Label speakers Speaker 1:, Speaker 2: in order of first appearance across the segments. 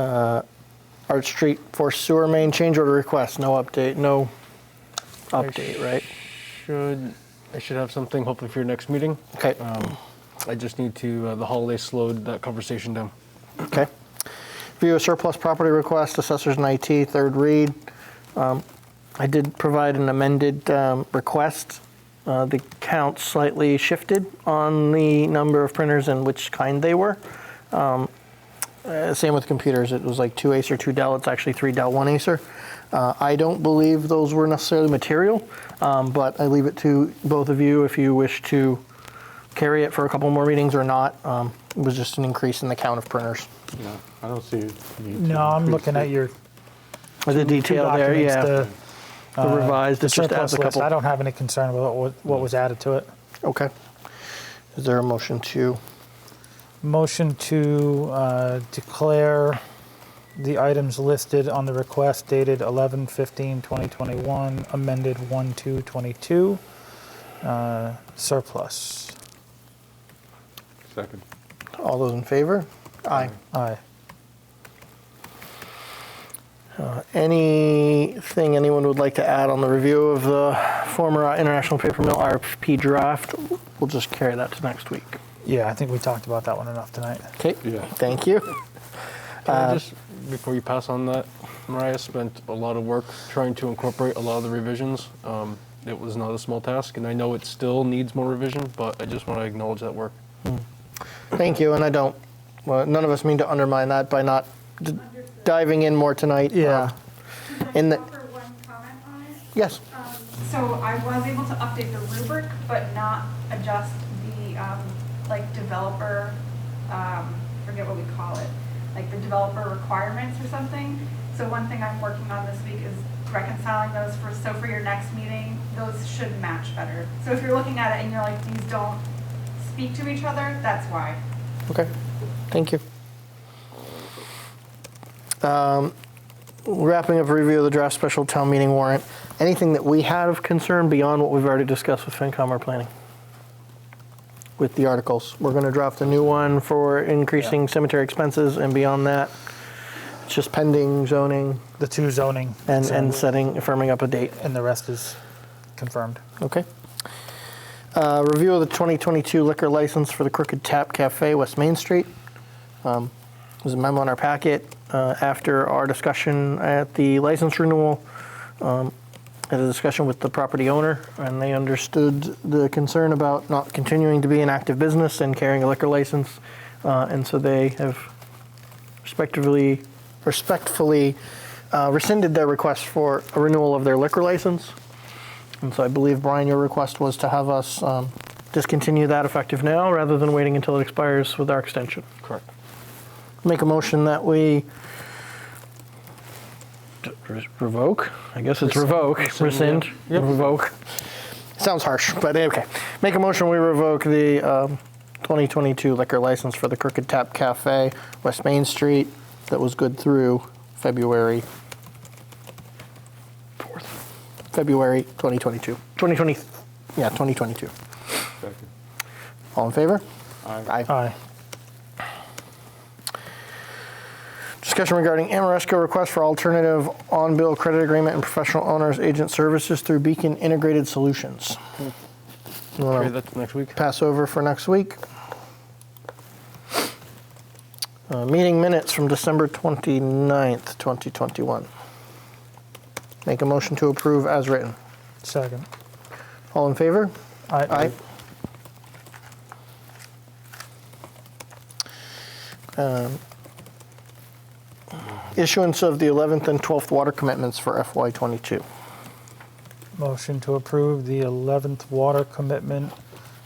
Speaker 1: Uh, Arch Street for sewer main change order request, no update, no update, right?
Speaker 2: Should, I should have something hopefully for your next meeting.
Speaker 1: Okay,
Speaker 2: I just need to, uh, the holiday slowed that conversation down.
Speaker 1: okay. View of surplus property request, assessors and IT, third read. Um, I did provide an amended um, request. Uh, The count slightly shifted on the number of printers and which kind they were. Um, Uh, Same with computers, it was like two Acer, two Dell, it's actually three Dell, one Acer. Uh, I don't believe those were necessarily material, um, but I leave it to both of you if you wish to carry it for a couple more meetings or not. Um, It was just an increase in the count of printers.
Speaker 3: No, I don't see. a need to
Speaker 4: No, I'm
Speaker 3: increase
Speaker 4: looking
Speaker 3: it.
Speaker 4: at your
Speaker 1: The
Speaker 4: two
Speaker 1: detail there,
Speaker 4: documents,
Speaker 1: yeah.
Speaker 4: the, uh,
Speaker 1: The revised,
Speaker 4: the
Speaker 1: it just
Speaker 4: surplus
Speaker 1: adds a
Speaker 4: list. I
Speaker 1: couple.
Speaker 4: don't have any concern with what- what was added to it.
Speaker 1: Okay. Is there a motion to,
Speaker 4: Motion to uh, declare the items listed on the request dated 11/15/2021, amended 1/2/22, uh, surplus.
Speaker 3: Second.
Speaker 1: all those in favor? Aye.
Speaker 4: Aye.
Speaker 1: Anything anyone would like to add on the review of the former uh, International Paper Mill RFP draft? We'll just carry that to next week.
Speaker 4: Yeah, I think we talked about that one enough tonight.
Speaker 1: Okay,
Speaker 3: Yeah.
Speaker 1: thank you.
Speaker 2: Can
Speaker 1: Uh,
Speaker 2: I just, before you pass on that, Mariah spent a lot of work trying to incorporate a lot of the revisions. Um, It was not a small task, and I know it still needs more revision, but I just want to acknowledge that work.
Speaker 1: Thank you, and I don't, well, none of us mean to undermine that by not d- diving in more tonight.
Speaker 4: Yeah.
Speaker 1: In the-
Speaker 5: Offer one comment on it.
Speaker 1: Yes,
Speaker 5: Um, So I was able to update the rubric, but not adjust the, um, like, developer, um, forget what we call it, like the developer requirements or something. So one thing I'm working on this week is reconciling those for, so for your next meeting, those should match better. So if you're looking at it and you're like, these don't speak to each other, that's why.
Speaker 1: okay, thank you. Um, Wrapping up review of the draft special town meeting warrant, anything that we had of concern beyond what we've already discussed with FinCom or planning? With the articles, we're going to draft a new one for increasing cemetery expenses, and beyond that, it's just pending zoning
Speaker 4: The two zoning.
Speaker 1: and, and setting, firming up a date.
Speaker 4: And the rest is confirmed.
Speaker 1: Okay. Uh, Review of the 2022 liquor license for the Crooked Tap Cafe, West Main Street. Um, There's a memo in our packet uh, after our discussion at the license renewal. um, Had a discussion with the property owner, and they understood the concern about not continuing to be an active business and carrying a liquor license. uh, And so they have respectively, respectfully uh, rescinded their request for a renewal of their liquor license. And so I believe, Brian, your request was to have us um, discontinue that effective now rather than waiting until it expires with our extension.
Speaker 2: Correct.
Speaker 1: Make a motion that we d- re- revoke, I guess it's revoke, rescind, revoke. Sounds harsh, but okay. Make a motion, we revoke the um, 2022 liquor license for the Crooked Tap Cafe, West Main Street, that was good through February 4th, February 2022, 2020, yeah, 2022.
Speaker 3: Second.
Speaker 1: All in favor?
Speaker 3: Aye.
Speaker 1: Aye.
Speaker 4: Aye.
Speaker 1: Discussion regarding Amoresco request for alternative on-bill credit agreement and professional owners agent services through Beacon Integrated Solutions. You wanna
Speaker 2: Okay, that's next week.
Speaker 1: Pass over for next week. Uh, Meeting minutes from December 29th, 2021. Make a motion to approve as written.
Speaker 4: Second.
Speaker 1: All in favor? Aye. Um, Issuance of the 11th and 12th water commitments for FY '22.
Speaker 4: Motion to approve the 11th water commitment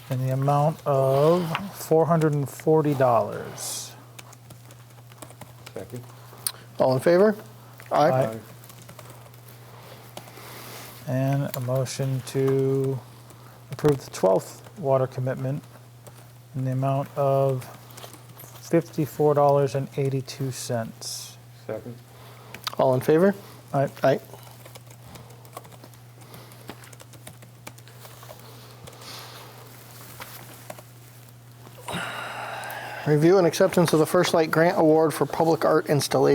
Speaker 4: in the amount of $440.
Speaker 3: Second.
Speaker 1: All in favor?
Speaker 4: Aye. And a motion to approve the 12th water commitment in the amount of $54.82.
Speaker 3: Second.
Speaker 1: All in favor?
Speaker 4: Aye.
Speaker 1: Aye. Review and acceptance of the First Light Grant Award for Public Art Installation.